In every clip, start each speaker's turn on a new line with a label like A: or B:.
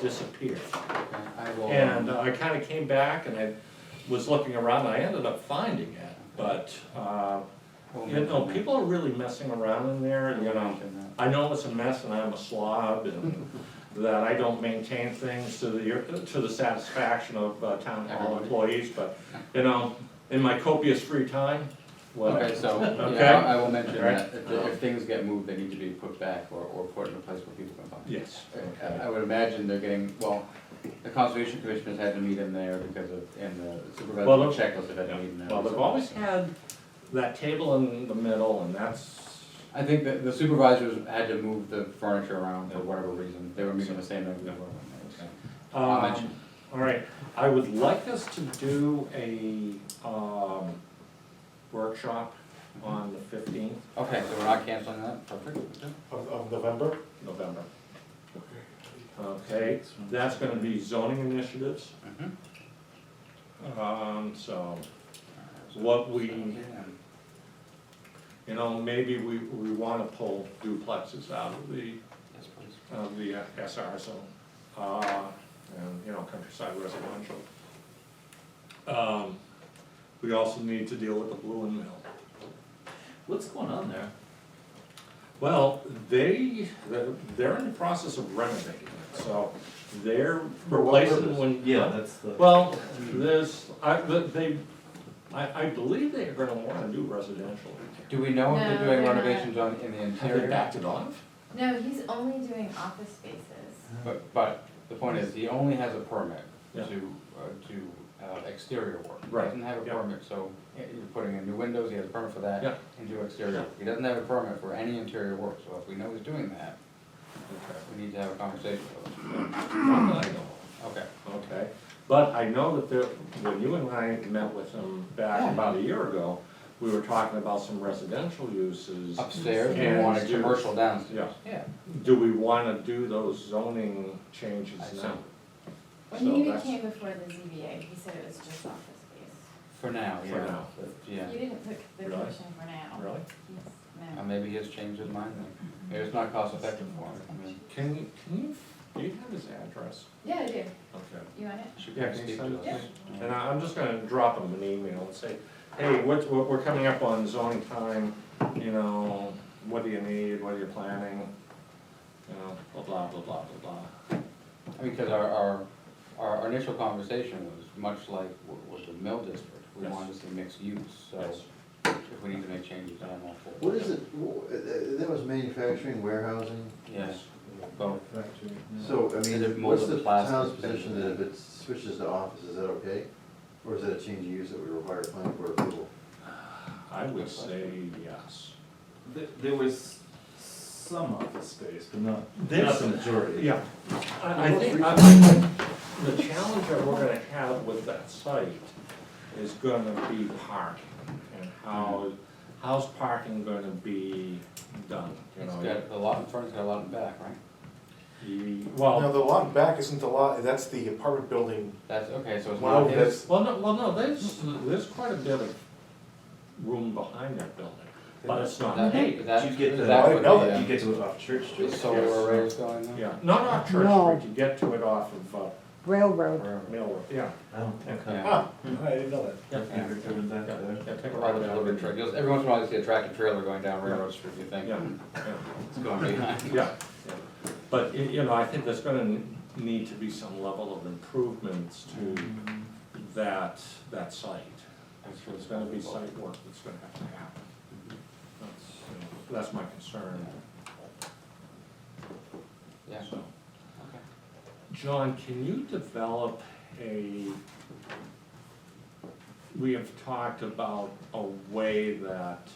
A: disappear.
B: I will. uh,
A: And I kinda came back and I was looking around, I ended up finding it, but, uh,
B: we'll
A: you know,
B: mention
A: people are really messing around in there,
B: that.
A: and, you
B: We'll
A: know,
B: mention
A: I know it's a mess and I'm a slob and that I don't maintain things to the, to the satisfaction of uh, town hall
B: Everybody.
A: employees, but, you know, in my copious free time,
B: that.
A: well,
B: Okay, so,
A: Okay.
B: yeah, I I will mention
A: Alright.
B: that, if, the- if things get moved, they need to be put back or, or put in a place where people can find.
A: yes.
B: I- I- I would imagine they're getting, well, the conservation commissioners had to meet in there because of, and the
A: Well,
B: supervisor of checklist have had to meet in there.
A: Well, they've always had that table in the middle and that's,
B: I think that the supervisors had to move the furniture around for whatever reason, they were meeting the same night we were. I'll
A: um,
B: mention.
A: all right. I would like us to do a, um, workshop on the fifteenth
B: Okay, so we're not canceling that, perfect.
C: Of, of November?
A: November. Okay, that's gonna be zoning initiatives,
B: Mhm.
A: um, so what we, you know, maybe we, we wanna pull duplexes out of the,
B: Yes, please.
A: of the SR zone. Uh, and, you know, countryside residential. Um, we also need to deal with the Blue and Mill.
D: What's going on there?
A: Well, they, they're- they're in the process of renovating it, so they're replacing when.
D: that's the.
A: Well, there's, I, but they, I, I believe they are gonna wanna do residential.
B: Do we know if they're
E: No,
B: doing
E: they're not.
B: renovations on, in the
A: Have they
B: interior?
A: backed it off?
E: No, he's only doing office spaces.
B: But, but the point is, he only has a permit to,
A: Yeah.
B: uh, to uh, exterior work. He
A: Right,
B: Doesn't have a
A: yeah.
B: permit, so uh, you're putting in new windows, he has a permit for that.
A: Yeah.
B: And do exterior, he doesn't have a permit for any interior work, so if we know he's doing that, we need to have a conversation with him.
A: Not that I know of.
B: Okay.
A: Okay, but I know that there, when you and I met with them back
B: Yeah.
A: about a year ago, we were talking about some residential uses.
B: Upstairs, we
A: And
B: want a
A: do-
B: commercial downstairs.
A: Yeah,
B: Yeah.
A: do we wanna do those zoning changes
B: I
A: now?
B: see.
A: So
E: When he even
A: that's-
E: came before the ZBA, he said it was just office space.
B: For now,
A: For
B: yeah.
A: now.
B: But, Yeah.
E: He didn't put the
A: Really?
E: commission for now.
A: Really?
E: He's-
B: Uh,
E: no.
B: maybe he has changed his mind then. Maybe it's not cost effective for him. I mean,
A: Can you, can you, do you have his address?
E: Yeah, I do.
A: Okay.
E: You want it?
B: should
A: Yeah,
B: we
A: can you
B: speak
A: send
B: to
A: it
B: us?
A: to
E: me?
B: Yeah.
A: And I, I'm just gonna drop him an email and say, hey, what, what, we're coming up on zoning time, you know, what do you need, what are you planning? You know, blah, blah, blah, blah, blah, blah.
B: I mean, because our, our, our our initial conversation was much like w- with the mill district, we
A: Yes.
B: wanted to see mixed use, so
A: Yes.
B: if we need to make changes, then I'm all for it.
F: What is it, wh- uh, that was manufacturing, warehousing?
B: Yes, both,
F: So, I
B: Is it
F: mean, what's
B: molded
F: the
B: plastic?
F: town's position that if it switches to office, is that okay? Or is that a change of use that would require planning board approval?
A: I would say yes.
D: There, there was some office space, but not, not
A: There's-
D: the majority.
A: Yeah, I, I think, I think the challenge that we're gonna have with that site is gonna be parking. And how, how's parking gonna be done, you
B: it's
A: know?
B: got, the lot in front's got a lot in back, right?
A: Ye-
C: Now,
A: Well,
C: the lot in back isn't the lot, that's the apartment building,
B: That's, okay, so it's
C: Well,
B: not his,
C: that's-
A: well, no, well, no, there's, there's quite a bit of room behind that building, but it's not
B: that,
A: paved.
B: that,
D: you get the-
B: that
C: I
B: would
C: know
B: be,
C: that
D: You
B: uh,
D: get to it off Church Street.
B: the solar arrays going there?
A: Yeah, not off Church Street, you get to it off of, uh,
G: railroad.
B: Forever.
A: Mill Road, yeah.
D: Oh, okay.
B: Yeah,
D: I didn't know
A: Yeah.
D: that. Yeah, we're doing that there.
A: Yeah, take a
B: Probably
A: ride
B: a little
A: down.
B: bit tricky, You'll- every once in a while you see a tractor trailer going down Railroad Street, you think,
A: Yeah, yeah.
B: it's going behind.
A: Yeah, yeah. but, y- you know, I think there's gonna n- need to be some level of improvements to that, that site. There's gonna be site work that's gonna have to happen. That's, you know, that's my concern,
B: Yeah,
A: so.
B: okay.
A: John, can you develop a, we have talked about a way that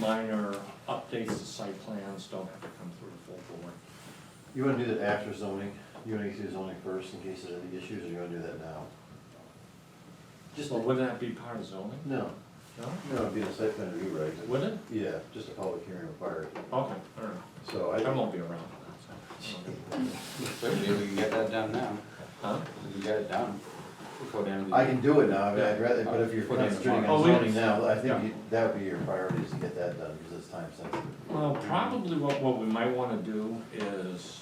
A: minor updates to site plans don't have to come through the full board.
F: You wanna do that after zoning, you wanna get through zoning first in case there's any issues, or you wanna do that now? Just,
A: Well, wouldn't that be part of zoning?
F: no,
A: No?
F: no, it'd be a site plan review, right?
A: Would it?
F: Yeah, just a public hearing required,
A: Okay, all right.
F: so
A: I
F: I,
A: won't be around for that,
B: So maybe we can get that done now.
A: so. Huh?
B: We can get it done before the end of the
F: I
B: year.
F: can do it now, I mean, I'd rather, but if you're
B: Put it in
F: concentrating
A: tomorrow.
F: on
A: Oh, we-
F: zoning now, I
A: yeah.
F: think you- that would be your priority, is to get that done, because it's time sensitive.
A: Well, probably what, what we might wanna do is